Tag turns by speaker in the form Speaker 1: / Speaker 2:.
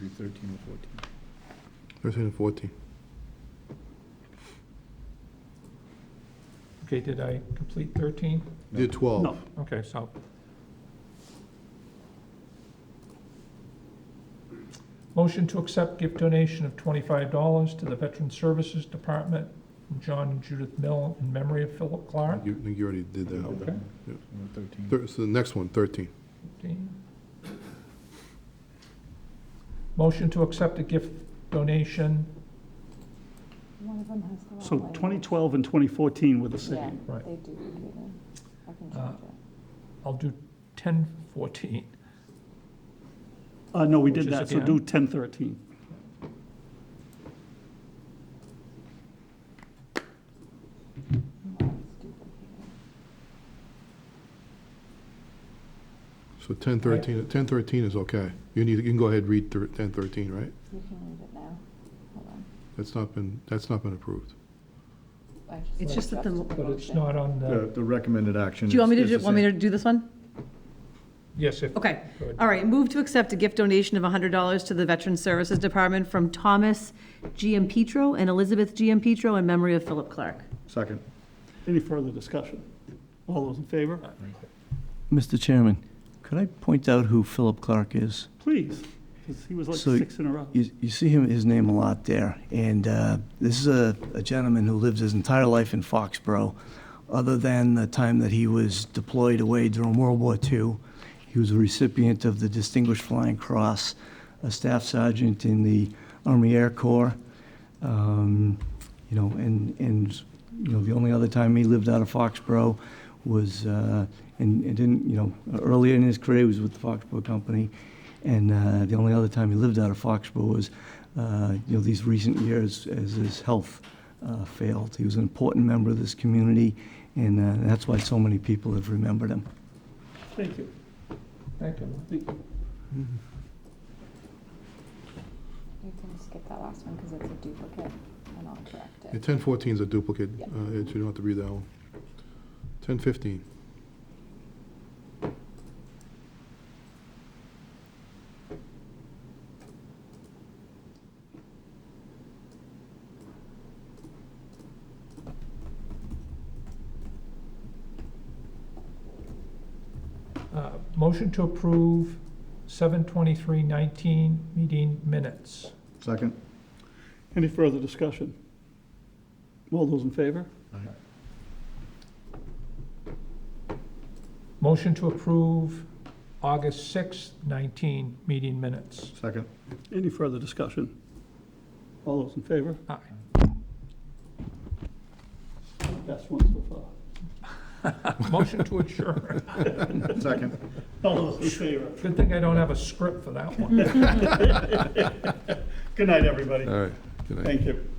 Speaker 1: be 13 or 14.
Speaker 2: 13 and 14.
Speaker 3: Okay, did I complete 13?
Speaker 2: You did 12.
Speaker 4: No.
Speaker 3: Okay, so. Motion to accept gift donation of $25 to the Veteran Services Department, from John and Judith Mill in memory of Philip Clark.
Speaker 2: You, I think you already did that.
Speaker 3: Okay.
Speaker 2: Yeah.
Speaker 1: Number 13.
Speaker 2: Thir- So the next one, 13.
Speaker 3: 15. Motion to accept a gift donation,
Speaker 5: One of them has the wrong
Speaker 4: So
Speaker 5: label.
Speaker 4: 2012 and 2014 were the
Speaker 5: Yeah,
Speaker 4: same.
Speaker 3: Right.
Speaker 5: they do, do that. I can
Speaker 3: Uh,
Speaker 5: change it.
Speaker 3: I'll do 1014.
Speaker 4: Uh, no, we
Speaker 3: Which
Speaker 4: did
Speaker 3: is
Speaker 4: that, so
Speaker 3: again-
Speaker 4: do 1013.
Speaker 5: Mine's duplicated.
Speaker 2: So 10, 13, 10, 13 is okay. You need, you can go ahead and read thir- 10, 13, right?
Speaker 5: You can read it now. Hold on.
Speaker 2: That's not been, that's not been approved.
Speaker 5: I
Speaker 6: It's just that the-
Speaker 5: adjusted
Speaker 3: But it's
Speaker 5: motion.
Speaker 3: not on
Speaker 1: The
Speaker 3: the,
Speaker 1: the recommended action.
Speaker 6: Do you want me to,
Speaker 1: is-
Speaker 6: do
Speaker 1: is the
Speaker 6: want me
Speaker 1: same.
Speaker 6: to do this one?
Speaker 3: yes, if.
Speaker 6: Okay.
Speaker 3: Good.
Speaker 6: All right, move to accept a gift donation of $100 to the Veterans Services Department from Thomas GM Petro and Elizabeth GM Petro in memory of Philip Clark.
Speaker 1: Second.
Speaker 4: Any further discussion? All those in favor?
Speaker 7: Mr. Chairman, could I point out who Philip Clark is?
Speaker 4: Please, because he was like
Speaker 7: So-
Speaker 4: six in a row.
Speaker 7: You, you see him, his name a lot there, and uh, this is a, a gentleman who lived his entire life in Foxborough, other than the time that he was deployed away during World War II. He was a recipient of the Distinguished Flying Cross, a staff sergeant in the Army Air Corps, um, you know, and, and, you know, the only other time he lived out of Foxborough was, uh, and, and didn't, you know, earlier in his career, he was with the Foxborough Company, and uh, the only other time he lived out of Foxborough was, uh, you know, these recent years as his health uh, failed. He was an important member of this community, and uh, that's why so many people have remembered him.
Speaker 4: Thank you.
Speaker 3: Thank you.
Speaker 4: Thank you.
Speaker 5: You can skip that last one because it's a duplicate and I'll correct
Speaker 2: Yeah,
Speaker 5: it.
Speaker 2: 10, 14 is a duplicate.
Speaker 5: Yeah.
Speaker 2: Uh, You don't have to read that one. 10, 15.
Speaker 3: Uh, Motion to approve 7:23:19 meeting minutes.
Speaker 1: Second.
Speaker 4: Any further discussion? All those in favor?
Speaker 3: Motion to approve August 6:19 meeting minutes.
Speaker 1: Second.
Speaker 4: Any further discussion? All those in favor?
Speaker 3: Aye.
Speaker 4: Best one so far.
Speaker 3: Motion to adjourn.
Speaker 1: Second.
Speaker 4: All those in favor?
Speaker 3: Good thing I don't have a script for that one.
Speaker 4: Good night, everybody.
Speaker 2: All right. Good night.
Speaker 4: Thank you.